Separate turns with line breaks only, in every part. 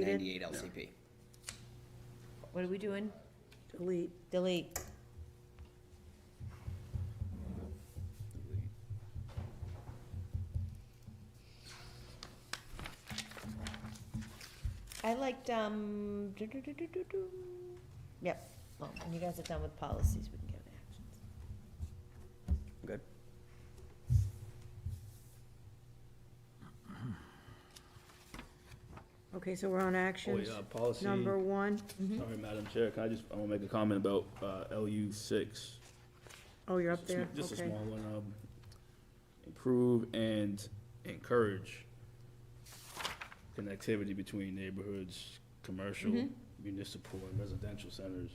ninety-eight
deleted.
LCP.
What are we doing?
Delete.
Delete. I liked, um, do, do, do, do, do, do. Yep, well, when you guys are done with policies, we can get to actions.
Good.
Okay, so we're on actions.
Oh, yeah, policy.
Number one.
Mm-hmm.
Sorry, Madam Chair, can I just, I wanna make a comment about, uh, LU six.
Oh, you're up
Just a sm-
there,
Just a
okay.
small one, um, improve and encourage connectivity between neighborhoods, commercial,
Mm-hmm.
municipal, and residential centers.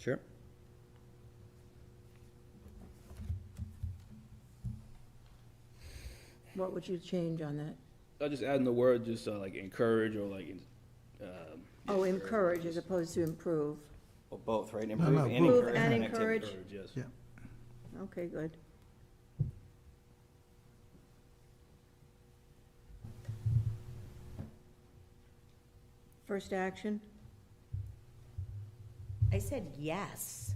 Sure.
What would you change on that?
I just adding the word, just uh, like encourage or like, in- um,
Oh, encourage as opposed to improve.
Well, both, right?
no,
Improve and
both.
Improve
encourage
and
connectivity.
encourage.
encourage, yes.
Yeah.
Okay, good. First action?
I said yes.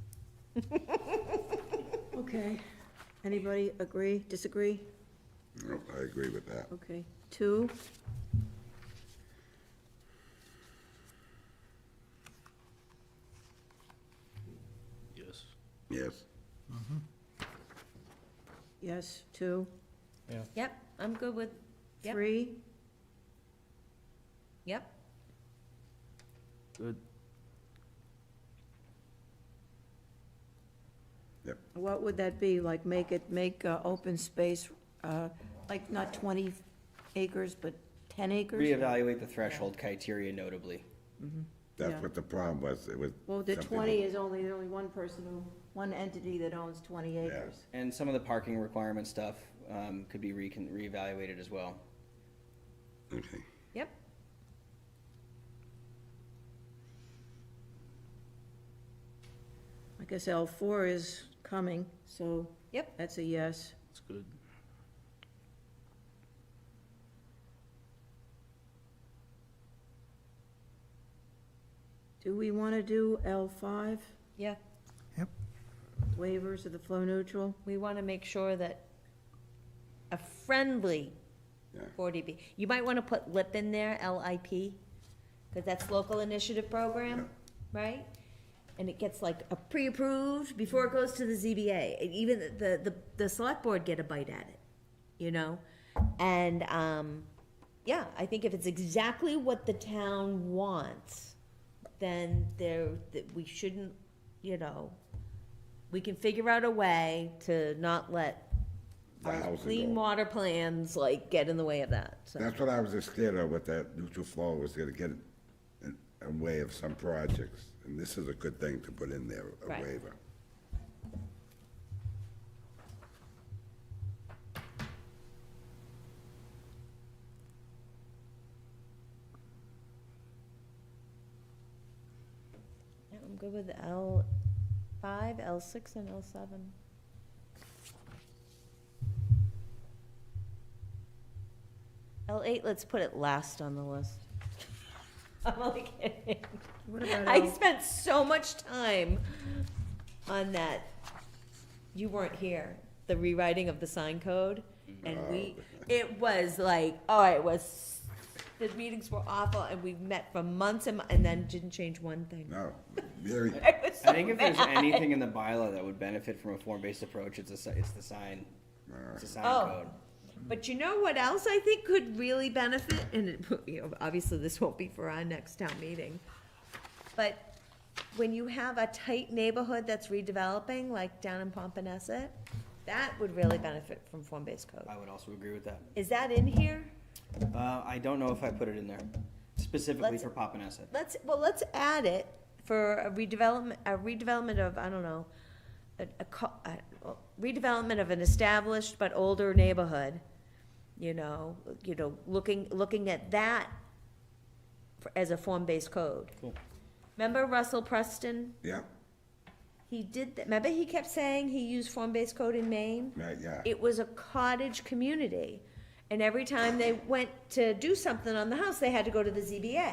Okay. Anybody agree, disagree?
No, I agree with that.
Okay. Two?
Yes.
Yes.
Yes, two.
Yep, I'm good with, Yep.
Three?
yep.
Good.
What would that be? Like, make it, make uh, open space, uh, like, not 20 acres, but 10 acres?
Reevaluate the threshold criteria notably.
Yeah.
That's what the problem was, it was.
Well, the
something
20 is only, there's only one person who, one entity that owns 20 acres.
And some of the parking requirement stuff, um, could be recon, reevaluated as well.
with- Okay,
Yep.
I guess L4 is coming, so.
Yep.
That's a yes.
It's good.
Do we want to do L5,
Yeah,
waivers of the flow neutral?
we want to make sure that a friendly
Yeah.
40B, you might want to put LIP in there, L-I-P, because that's local initiative program, right? And it gets like a pre-approved before it goes to the ZBA, and even the, the, the select board get a bite at it, you know? And, um, yeah, I think if it's exactly what the town wants, then there, that we shouldn't, you know, we can figure out a way to not let
The
our
housing
clean
goal.
water plans like get in the way of that, so.
that's what I was just scared of, with that neutral flow, was gonna get in, in way of some projects, and this is a good thing to put in there, a
Right.
waiver.
Yeah, I'm good with L five, L six, and L seven. L eight, let's put it last on the list. I'm only kidding.
What about
I
L,
spent so much time on that. You weren't here. The rewriting of the sign code, and we, it was like, oh, it was. The meetings were awful, and we met for months and, mo- and then didn't change one thing.
No, very,
I was so
I think if there's
mad.
anything in the bylaw that would benefit from a form-based approach, it's a, si- it's the sign, it's a sign
Oh.
code.
But you know what else I think could really benefit, and it, you know, obviously this won't be for our next town meeting. But when you have a tight neighborhood that's redeveloping, like down in Pompanesset, that would really benefit from form-based code.
I would also agree with that.
Is that in here?
Uh, I don't know if I put it in there specifically
Let's-
for Papaneset.
Let's, well, let's add it for a redevelopment, a redevelopment of, I don't know, a, a co- a- redevelopment of an established but older neighborhood. You know, you know, looking, looking at that for- as a form-based code.
Cool.
Remember Russell Preston?
yeah,
He did, that. remember he kept saying he used form-based code in Maine?
right, yeah.
It was a cottage community, And every time they went to do something on the house, they had to go to the ZBA.